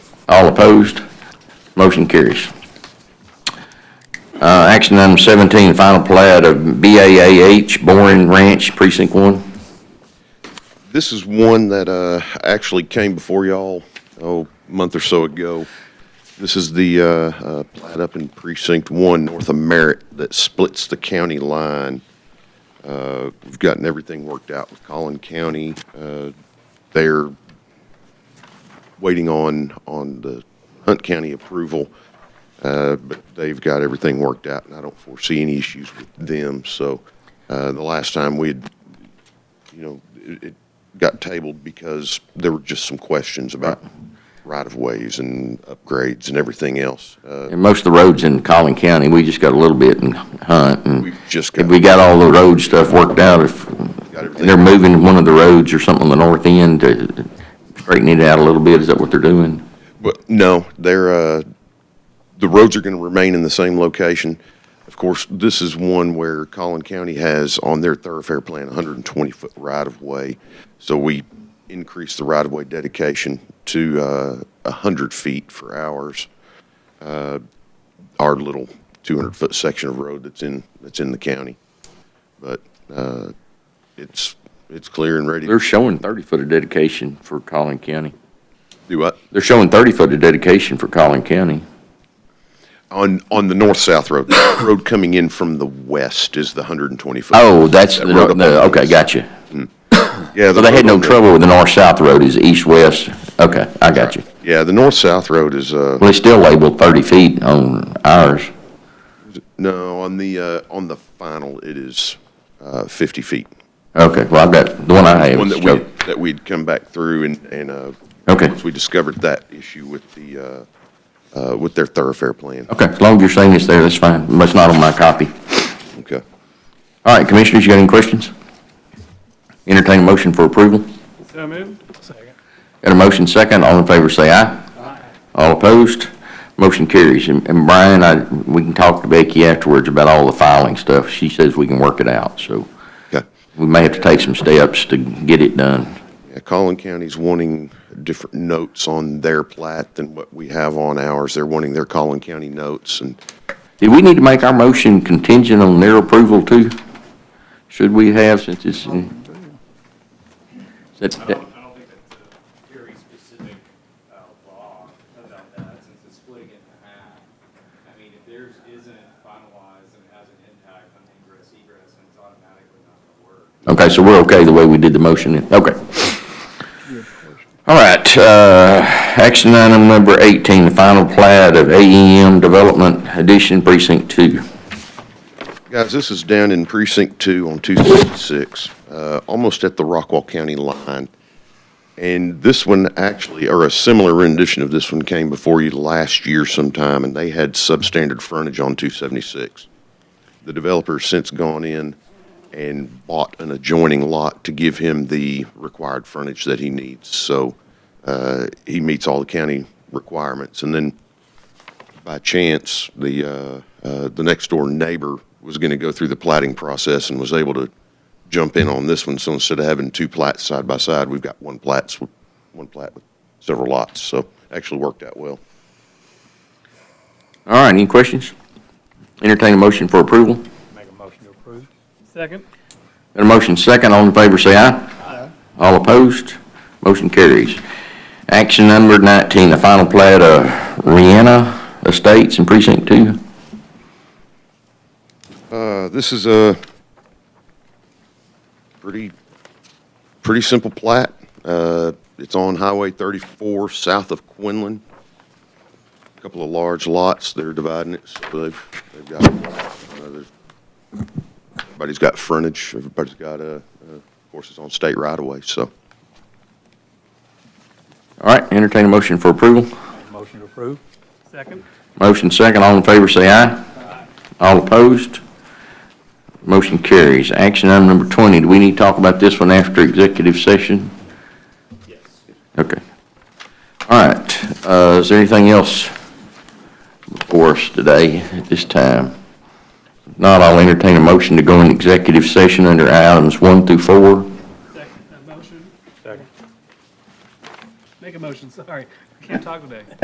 All opposed? Motion carries. Uh, Action item 17, final plat of BAAH Boring Ranch Precinct 1. This is one that uh, actually came before y'all, oh, a month or so ago. This is the uh, uh, plat up in Precinct 1, north of Merritt, that splits the county line. Uh, We've gotten everything worked out with Collin County. Uh, They're waiting on, on the Hunt County approval, uh, but they've got everything worked out, and I don't foresee any issues with them. So uh, the last time we had you know, it, it got tabled because there were just some questions about right-of-ways and upgrades and everything else. Uh, And most of the roads in Collin County, we just got a little bit in Hunt, and we've just if got, we got all the road stuff worked out, if got they're everything. moving one of the roads or something on the north end, to straighten it out a little bit, is that what they're doing? But no, they're, uh, the roads are gonna remain in the same location. Of course, this is one where Collin County has on their thoroughfare plan, hundred and twenty-foot right-of-way. So we increased the right-of-way dedication to, uh, hundred feet for ours. our little 200-foot section of road that's in, that's in the county. But uh, it's, it's clear and ready. They're showing 30-foot of dedication for Collin County. Do what? They're showing 30-foot of dedication for Collin County. On, on the north-south road, the road coming in from the west is the 120-foot. Oh, that's, the road up on no, the okay, east. gotcha. Yeah. So they had no trouble with the north-south road, is east-west? Okay, I got you. Yeah, the north-south road is, uh, Well, it's still labeled 30 feet on ours. no, on the, uh, on the final, it is uh, 50 feet. Okay, well, I've got, the one I have One is that we, that we'd come back through and, and uh, Okay. once we discovered that issue with the, uh, uh, with their thoroughfare plan. Okay, as long as you're saying it's there, that's fine, but it's not on my copy. Oh. Okay. All right, commissioners, you got any questions? Entertain a motion for approval? So moved. Second. Got a motion second, all in favor say aye. All opposed, motion carries. And and Brian, I, we can talk to Becky afterwards about all the filing stuff. She says we can work it out, so Okay. we may have to take some steps to get it done. Yeah, Collin County's wanting different notes on their plat than what we have on ours. They're wanting their Collin County notes, and Do we need to make our motion contingent on their approval too? Should we have, since it's, in- Is I that- don't, I don't think that's a very specific, uh, law about that, since it's splitting it in half. I mean, if theirs isn't finalized and it has an impact on ingress egress, then it's automatically not gonna work. Okay, so we're okay the way we did the motion then? Okay. All right, uh, action item number 18, the final plat of AEM Development Addition Precinct 2. Guys, this is down in Precinct Two on two sixty-six, uh, almost at the Rockwall County line. And this one actually, or a similar rendition of this one came before you last year sometime, and they had substandard frontage on two seventy-six. The developer's since gone in and bought an adjoining lot to give him the required frontage that he needs. So, uh, he meets all the county requirements. And then by chance, the, uh, uh, the next door neighbor was going to go through the plating process and was able to jump in on this one. So instead of having two plats side by side, we've got one plats, with- one plat with several lots. So actually worked out well. All right, any questions? Entertain a motion for approval. Make a motion to approve. Second. Got a motion second, all in favor say aye. Aye. All opposed, motion carries. Action number 19, the final plat of Rihanna Estates in Precinct 2. Uh, this is a pretty, pretty simple plat. Uh, it's on Highway 34, south of Quinlan. A Couple of large lots, they're dividing it, so they've, they've got, uh, there's- everybody's got frontage, everybody's got, uh, uh, of course, it's on state right-of-way, so. All right, entertain a motion for approval. Make a motion to approve. Second. Motion second, all in favor say aye. All opposed? Motion carries. Action item number 20, do we need to talk about this one after executive session? Yes. Okay. All right, uh, is there anything else for us today at this time? If Not, I'll entertain a motion to go in executive session under items one through four. Second. A motion. Second. Make a motion, sorry. I can't talk today.